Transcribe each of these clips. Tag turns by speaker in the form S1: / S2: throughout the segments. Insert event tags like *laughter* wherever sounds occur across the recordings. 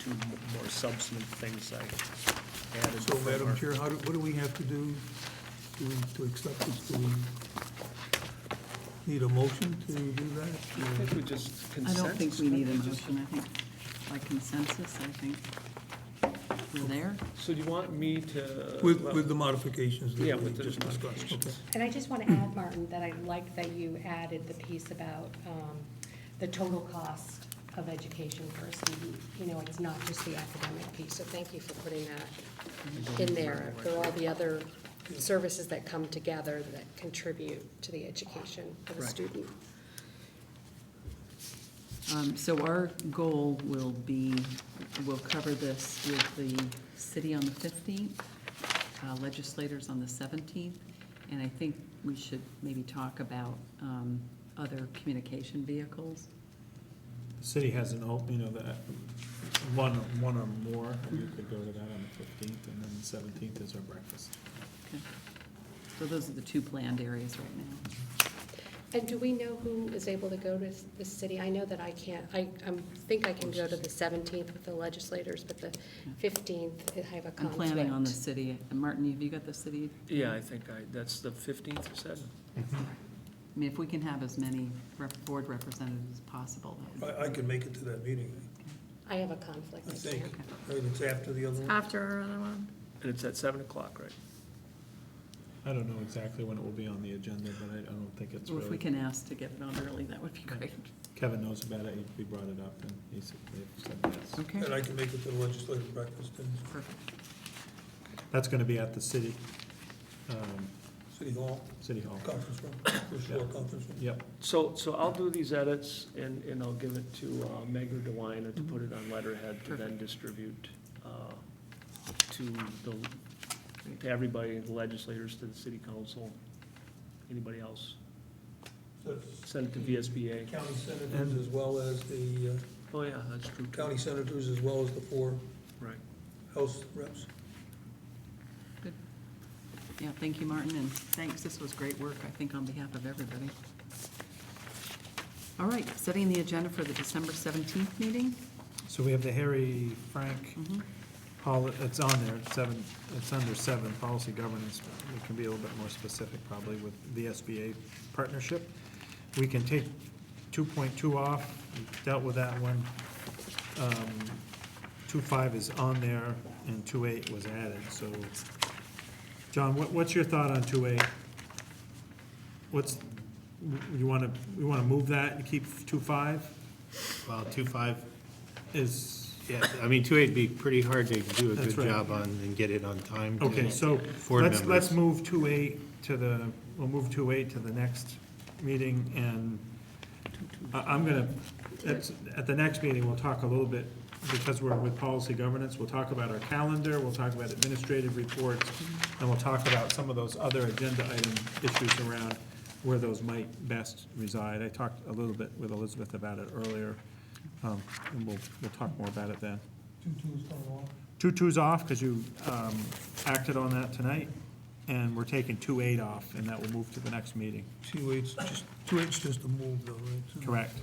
S1: two more substantive things I added.
S2: So,
S1: from
S2: Madam
S1: our-
S2: Chair, how do, what do we have to do to, to accept this? Do we need a motion to do
S1: I think
S2: that?
S1: we just
S3: I don't think we need a
S1: consensus, just-
S3: motion, I think by consensus, I think we're there.
S1: So do you want me to?
S2: With, with the modifications
S1: Yeah,
S2: that we
S1: with the
S2: just discussed?
S1: modifications.
S2: Okay.
S4: And I just want to
S3: Hmm.
S4: add, Martin, that I like that you added the piece about um, the total cost of education for a student. You know, it's not just the academic piece, so thank you for putting that in there. There are all the other services that come together that contribute to the education of a
S1: Right.
S4: student.
S3: Um, So our goal will be, we'll cover this with the city on the 15th, uh, legislators on the 17th, and I think we should maybe talk about um, other communication vehicles.
S5: The city has an open, you know, that, one, one or more, and you could go to that on the fifteenth, and then the seventeenth is our breakfast.
S3: Okay. So those are the two planned areas right now.
S4: And do we know who is able to go to the city? I know that I can't, I I'm- think I can go to the 17th with the legislators, but the 15th, I have a
S3: I'm
S4: conflict.
S3: planning on the city. And Martin, have you got the city?
S1: Yeah, I think I, that's the fifteenth you said?
S3: I mean, if we can have as many rep- board representatives as possible, that would be
S2: I, I can make it to that meeting,
S4: I have a conflict.
S2: I
S4: I
S2: think.
S4: can't.
S2: Right, It's after the other one?
S6: After our other one.
S1: And it's at seven o'clock, right?
S5: I don't know exactly when it will be on the agenda, but I, I don't think it's
S3: Well, if we
S5: really,
S3: can ask to get it on early, that would be great.
S5: Kevin knows about it, he- we brought it up, and he said, they said yes.
S3: Okay,
S2: And I can make it to the legislative breakfast in
S3: perfect.
S5: That's gonna be at the city, um,
S2: City Hall,
S5: city hall.
S2: conference room, first floor conference room.
S5: Yep,
S1: So, so I'll do these edits and, and I'll give it to uh, Meg or DeWine to put it on letterhead to then distribute uh, to the, to everybody, the legislators, to the city council, anybody else.
S2: That's
S1: Send it to VSBA.
S2: County senators as well as the, uh,
S1: Oh, yeah, that's true. too.
S2: county senators as well as the four
S1: Right.
S2: House reps.
S3: Yeah, thank you, Martin, and thanks. This was great work, I think, on behalf of everybody. All right, setting the agenda for the December 17th meeting.
S5: so we have the Harry Frank,
S3: Mhm.
S5: poli- it's on there, seven, it's under seven, policy governance. It can be a little bit more specific probably with the SBA partnership. We can take two point two off, We dealt with that one. Um, Two five is on there and two eight was added, so. John, what, what's your thought on two eight? What's, you wanna, you wanna move that and keep two five
S7: Well, two five,
S5: is,
S7: yeah, I mean, two eight'd be pretty hard to do a
S5: That's
S7: good
S5: right.
S7: job on and get it on time. to
S5: Okay, so
S7: board
S5: let's, let's
S7: members.
S5: move two eight to the, we'll move two eight to the next meeting, and I, I'm gonna, at, at the next meeting, we'll talk a little bit, because we're with policy governance, we'll talk about our calendar, we'll talk about administrative reports, and we'll talk about some of those other agenda item issues around where those might best reside. I talked a little bit with Elizabeth about it earlier, um, and we'll, we'll talk more about it then.
S2: Two twos coming off.
S5: Two twos off, because you um, acted on that tonight, and we're taking two eight off, and that will move to the next meeting,
S2: Two eights, just, two eights just a move though, right? So-
S5: correct?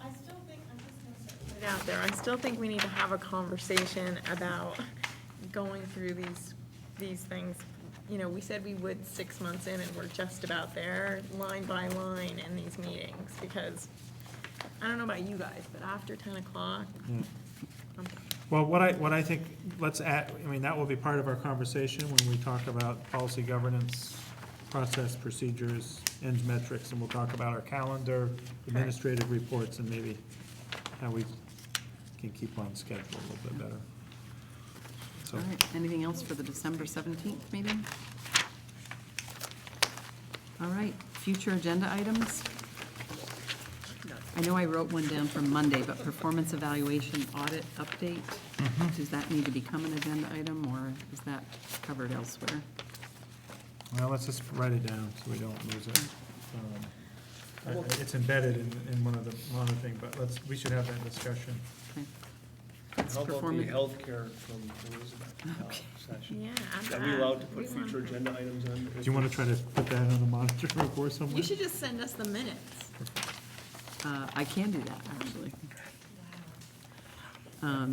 S6: I still think, I'm just gonna put it out there, I still think we need to have a conversation about going through these, these things. You know, we said we would six months in, and we're just about there, line by line in these meetings, because, I don't know about you guys, but after ten o'clock,
S1: Mm.
S6: I'm
S5: Well, what I, what I think, let's add, I mean, that will be part of our conversation when we talk about policy governance, process, procedures, ends metrics, and we'll talk about our calendar, administrative reports, and maybe how we can keep on schedule a little bit better. So,
S3: All right, anything else for the December 17th meeting? All right, future agenda items. I know I wrote one down from Monday, but performance evaluation audit update,
S1: Mm-hmm.
S3: does that need to become an agenda item, or is that covered elsewhere?
S5: well, let's just write it down so we don't lose it. Um, I- I- It's embedded in, in one of the, one other thing, but let's, we should have that discussion.
S3: Okay. It's
S1: How about the
S3: performance-
S1: healthcare from Elizabeth uh, session?
S6: Yeah, I'm.
S1: Are we allowed to put
S6: We want
S1: future
S6: that.
S1: agenda items on?
S5: Do you want to try to put that on the monitor *laughs* report somewhere?
S6: You should just send us the minutes.
S3: Uh, I can do that, actually. Um,